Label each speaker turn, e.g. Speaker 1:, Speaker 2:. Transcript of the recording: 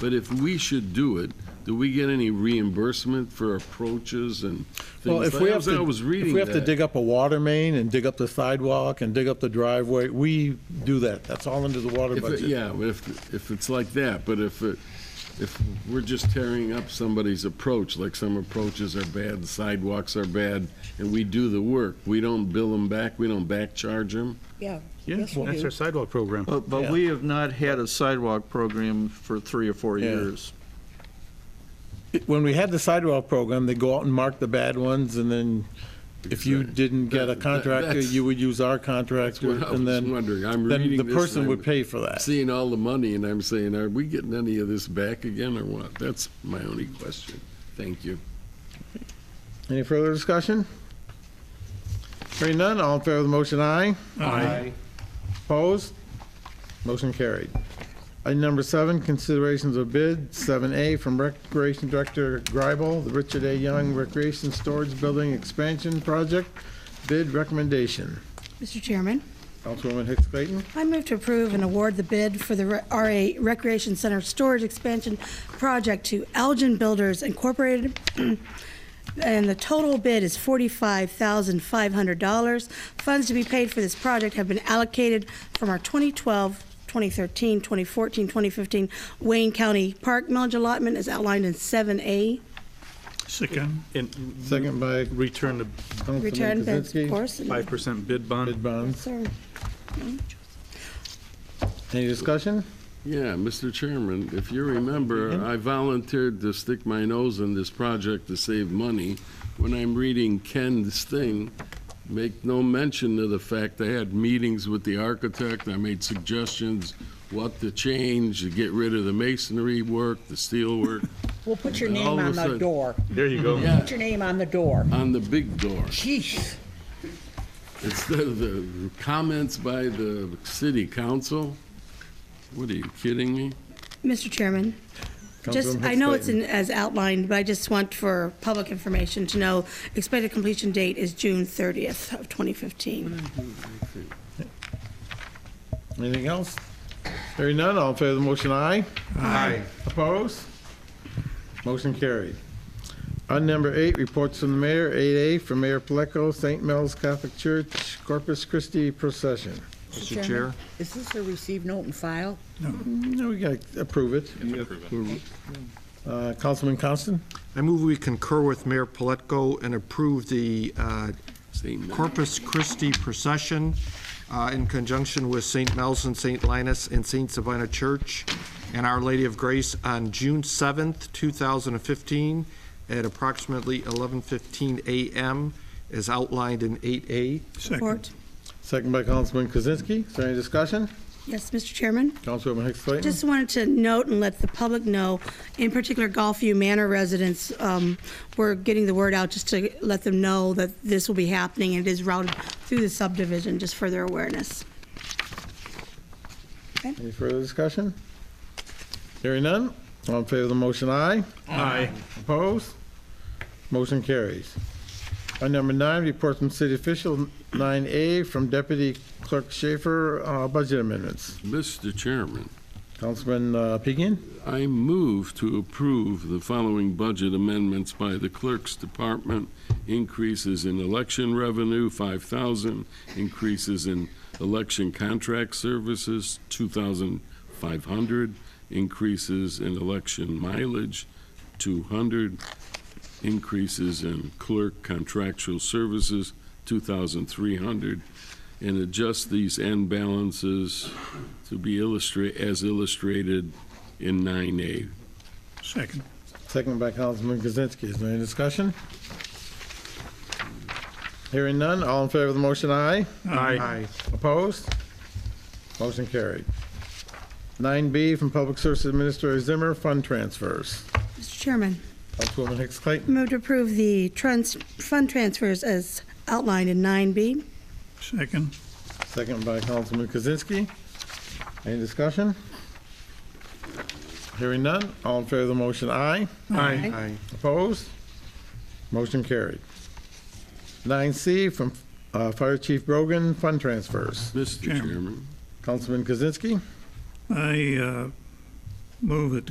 Speaker 1: But if we should do it, do we get any reimbursement for approaches and
Speaker 2: Well,
Speaker 1: things?
Speaker 2: if we
Speaker 1: I was-
Speaker 2: have to,
Speaker 1: I was
Speaker 2: if
Speaker 1: reading
Speaker 2: we have to
Speaker 1: that.
Speaker 2: dig up a water main and dig up the sidewalk and dig up the driveway, we do that. That's all under the water
Speaker 1: If it-
Speaker 2: budget.
Speaker 1: Yeah, if, if it's like that, but if, it- if we're just tearing up somebody's approach, like some approaches are bad, sidewalks are bad, and we do the work, we don't bill them back, we don't back charge them?
Speaker 3: Yeah.
Speaker 2: Yes,
Speaker 3: we
Speaker 4: That's
Speaker 3: do.
Speaker 4: our sidewalk program.
Speaker 5: But, but
Speaker 2: Yeah.
Speaker 5: we have not had a sidewalk program for three or four
Speaker 2: Yeah.
Speaker 5: years.
Speaker 2: It- When we had the sidewalk program, they go out and mark the bad ones, and then if you
Speaker 1: Exactly.
Speaker 2: didn't get a
Speaker 1: That- that-
Speaker 2: contractor,
Speaker 1: that's-
Speaker 2: you would use our
Speaker 1: That's what
Speaker 2: contractor,
Speaker 1: I
Speaker 2: and
Speaker 1: was
Speaker 2: then,
Speaker 1: wondering. I'm
Speaker 2: then
Speaker 1: reading
Speaker 2: the
Speaker 1: this and
Speaker 2: person
Speaker 1: I'm
Speaker 2: would pay for that.
Speaker 1: Seeing all the money, and I'm saying, are we getting any of this back again or what? That's my only question. Thank you.
Speaker 2: Any further discussion? Hearing none, all in favor of the motion, aye.
Speaker 4: Aye.
Speaker 2: Opposed? Motion carried. Item number seven, considerations of bid, 7A from Recreation Director Greibel, the Richard A. Young Recreation Storage Building Expansion Project, bid recommendation.
Speaker 3: Mr. Chairman,
Speaker 2: Councilwoman Hicks Clayton?
Speaker 3: I move to approve and award the bid for the Re- RA Recreation Center Storage Expansion Project to Elgin Builders Incorporated. And the total bid is $45,500. Funds to be paid for this project have been allocated from our 2012, 2013, 2014, 2015 Wayne County Park millage allotment as outlined in 7A.
Speaker 4: Second. And
Speaker 2: Second by
Speaker 4: return the
Speaker 2: Councilman
Speaker 3: Return bids,
Speaker 2: Kozinski.
Speaker 3: of course. and-
Speaker 4: 5% bid
Speaker 2: Bid
Speaker 4: bond.
Speaker 2: bonds.
Speaker 3: Sir.
Speaker 2: Any discussion?
Speaker 1: Yeah, Mr. Chairman, if you remember, I volunteered to stick my nose in this project to save money. When I'm reading Ken's thing, make no mention of the fact I had meetings with the architect, I made suggestions what to change, to get rid of the masonry work, the steel work,
Speaker 6: We'll put your
Speaker 1: And all of
Speaker 6: name
Speaker 1: a
Speaker 6: on the
Speaker 1: sudden-
Speaker 6: door.
Speaker 4: There you go.
Speaker 1: Yeah.
Speaker 6: Put your name on the door.
Speaker 1: on the big door.
Speaker 6: Jeez.
Speaker 1: Instead of the comments by the city council? What, are you kidding me?
Speaker 3: Mr. Chairman. Just,
Speaker 2: Councilwoman
Speaker 3: I
Speaker 2: Hicks
Speaker 3: know it's
Speaker 2: Clayton.
Speaker 3: in, as outlined, but I just want for public information to know, expected completion date is June 30th of 2015.
Speaker 2: Anything else? Hearing none, all in favor of the motion, aye.
Speaker 5: Aye.
Speaker 2: Opposed? Motion carried. Item number eight, reports from the mayor, 8A from Mayor Pleco, St. Mel's Catholic Church, Corpus Christi procession.
Speaker 5: Mr. Chair?
Speaker 6: Is this a receive note and file?
Speaker 2: No, we got to approve it. Uh, Councilman Constant?
Speaker 7: I move we concur with Mayor Pletko and approve the uh,
Speaker 1: St. Mel-
Speaker 7: Corpus Christi procession uh, in conjunction with St. Mel's and St. Linus and St. Savina Church and Our Lady of Grace on June 7th, 2015, at approximately 11:15 a.m., as outlined in 8A.
Speaker 3: Support.
Speaker 2: Second by Councilman Kozinski. Is there any discussion?
Speaker 3: Yes, Mr. Chairman?
Speaker 2: Councilwoman Hicks Clayton?
Speaker 3: Just wanted to note and let the public know, in particular Golfview Manor residents, um, we're getting the word out just to let them know that this will be happening and it is routed through the subdivision, just for their awareness.
Speaker 2: Any further discussion? Hearing none, all in favor of the motion, aye.
Speaker 4: Aye.
Speaker 2: Opposed? Motion carries. Item number nine, report from city official, 9A from Deputy Clerk Schaefer, uh, budget amendments.
Speaker 1: Mr. Chairman,
Speaker 2: Councilman uh, Pigian?
Speaker 1: I move to approve the following budget amendments by the Clerk's Department. Increases in election revenue, 5,000. Increases in election contract services, 2,500. Increases in election mileage, 200. Increases in clerk contractual services, 2,300. And adjust these end balances to be illustrate, as illustrated in 9A.
Speaker 4: Second.
Speaker 2: Second by Councilman Kozinski. Is there any discussion? Hearing none, all in favor of the motion, aye.
Speaker 4: Aye.
Speaker 2: Opposed? Motion carried. 9B from Public Service Administrator Zimmer, fund transfers.
Speaker 3: Mr. Chairman?
Speaker 2: Councilwoman Hicks Clayton?
Speaker 3: Move to approve the trans, fund transfers as outlined in 9B.
Speaker 4: Second.
Speaker 2: Second by Councilman Kozinski. Any discussion? Hearing none, all in favor of the motion, aye.
Speaker 4: Aye.
Speaker 7: Aye.
Speaker 2: Opposed? Motion carried. 9C from uh, Fire Chief Brogan, fund transfers.
Speaker 1: Mr.
Speaker 4: Chairman.
Speaker 1: Chairman.
Speaker 2: Councilman Kozinski?
Speaker 4: I uh, move that the